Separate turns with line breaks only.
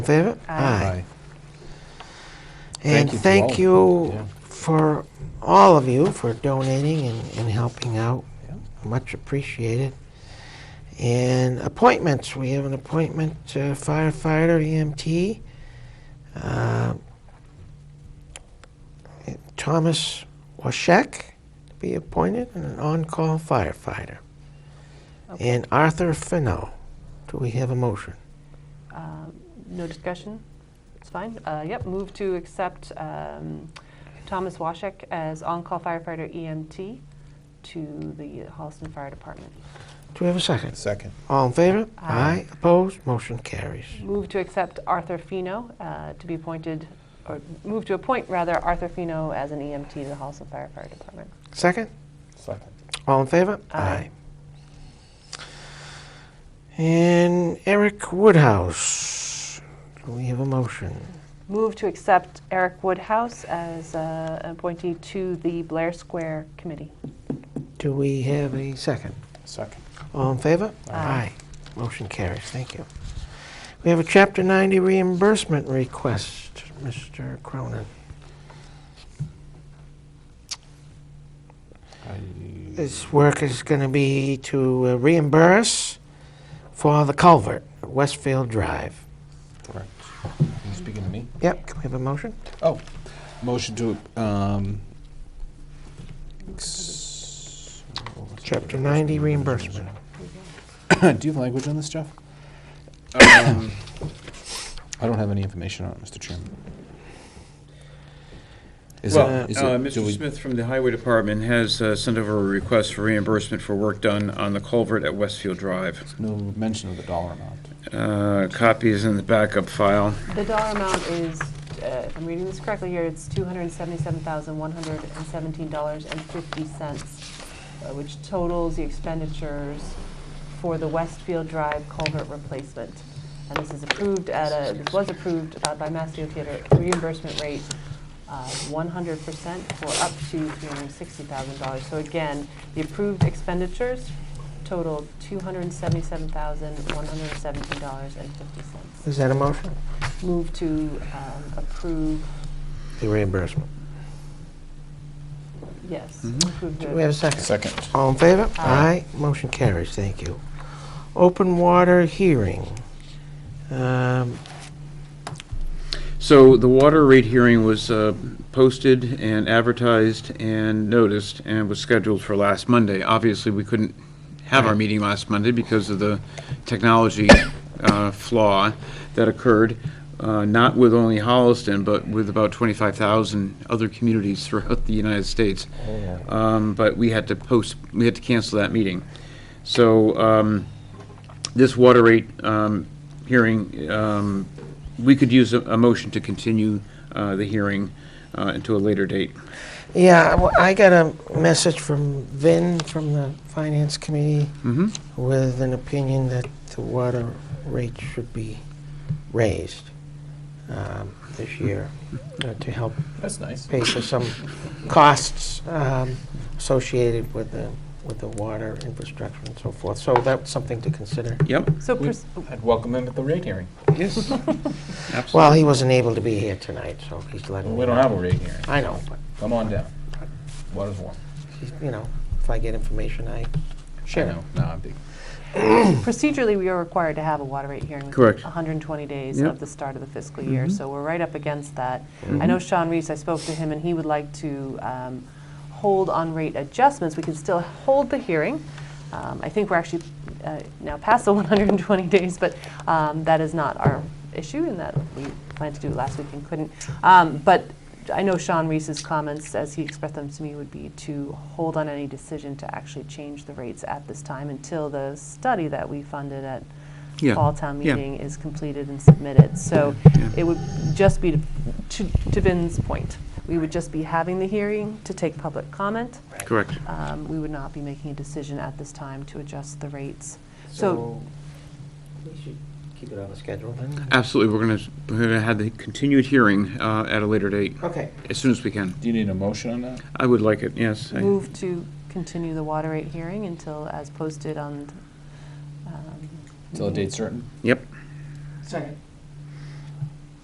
In favor?
Aye.
And thank
Thank you all.
you for, all of you, for donating and, and helping out.
Yeah.
Much appreciated. And appointments, we have an appointment uh, firefighter, EMT. uh, Thomas Washek to be appointed, and an on-call firefighter. And Arthur Fennell. Do we have a motion?
Um, No discussion? It's fine. Uh, Yep, move to accept um, Thomas Washek as on-call firefighter EMT to the Holliston Fire Department.
Do we have a second?
Second.
All in favor?
Aye.
Opposed? Motion carries.
Move to accept Arthur Fino uh, to be appointed, or move to appoint, rather, Arthur Fino as an EMT to the Holliston Fire Fire Department.
Second?
Second.
All in favor?
Aye.
And Eric Woodhouse. Do we have a motion?
Move to accept Eric Woodhouse as uh, an appointee to the Blair Square Committee.
Do we have a second?
Second.
All in favor?
Aye.
Motion carries. Thank you. We have a Chapter 90 reimbursement request, Mr. Cronin.
I-
This work is going to be to uh, reimburse for the culvert at Westfield Drive.
Correct. You speaking to me?
Yep, can we have a motion?
Oh, motion to, um. ex- what was it?
Chapter 90 reimbursement.
Do you have language on this, Jeff? Um, I don't have any information on it, Mr. Chairman. Is it-
Well,
is it-
uh,
do
Mr.
we-
Smith from the Highway Department has uh, sent over a request for reimbursement for work done on the culvert at Westfield Drive.
No mention of the dollar amount.
Uh, Copy is in the backup file.
The dollar amount is, uh, if I'm reading this correctly here, it's $277,117.50, uh, which totals the expenditures for the Westfield Drive culvert replacement. And this is approved at a, this was approved uh, by Mass DOT at a reimbursement rate uh, 100% for up to $360,000. So again, the approved expenditures totaled $277,117.50.
Is that a motion?
Move to um, approve,
The reimbursement.
yes.
Mhm.
approve
Do
the-
we have a second?
Second.
All in favor?
Aye.
Motion carries, thank you. Open water hearing. Um,
So the water rate hearing was uh, posted and advertised and noticed and was scheduled for last Monday. Obviously, we couldn't have our meeting last Monday because of the technology uh, flaw that occurred, uh, not with only Holliston, but with about 25,000 other communities throughout the United States. Um, But we had to post, we had to cancel that meeting. So um, this water rate um, hearing um, we could use a, a motion to continue uh, the hearing uh, until a later date.
Yeah, well, I got a message from Vin from the Finance Committee
Mm-hmm.
with an opinion that the water rate should be raised um, this year uh, to help
That's nice.
pay for some costs um, associated with the, with the water infrastructure and so forth. So that's something to consider.
Yep.
So, pers-
I'd welcome them at the rate hearing.
Yes. Absolutely.
Well, he wasn't able to be here tonight, so he's letting me know.
a rate hearing.
I know, but,
Come on down. Water's warm.
he's- you know, if I get information, I share. it.
No, no, I'm big.
procedurally, we are required to have a water rate hearing. within
Correct.
120 days
Yep. Mm-hmm.
of the start of the fiscal year, so we're right up against that. I know Sean Reese, I spoke to him, and he would like to um, hold on rate adjustments. We can still hold the hearing. Um, I think we're actually uh, now past the 120 days, but um, that is not our issue, and that we planned to do it last week and couldn't. Um, But I know Sean Reese's comments, as he expressed them to me, would be to hold on any decision to actually change the rates at this time until the study that we funded at
Yeah,
fall town
yeah.
meeting is completed and submitted. So
Yeah.
it would just be, to- to to Vin's point, we would just be having the hearing to take public comment.
Correct.
Um, We would not be making a decision at this time to adjust the rates. So
We should keep it on the schedule then.
Absolutely. We're going to we're going to have the continued hearing uh, at a later date
Okay,
as soon as we can.
Do you need a motion on that?
I would like it. Yes. I-
move to continue the water rate hearing until, as posted on. um,
Till a date certain?
Yep.
second.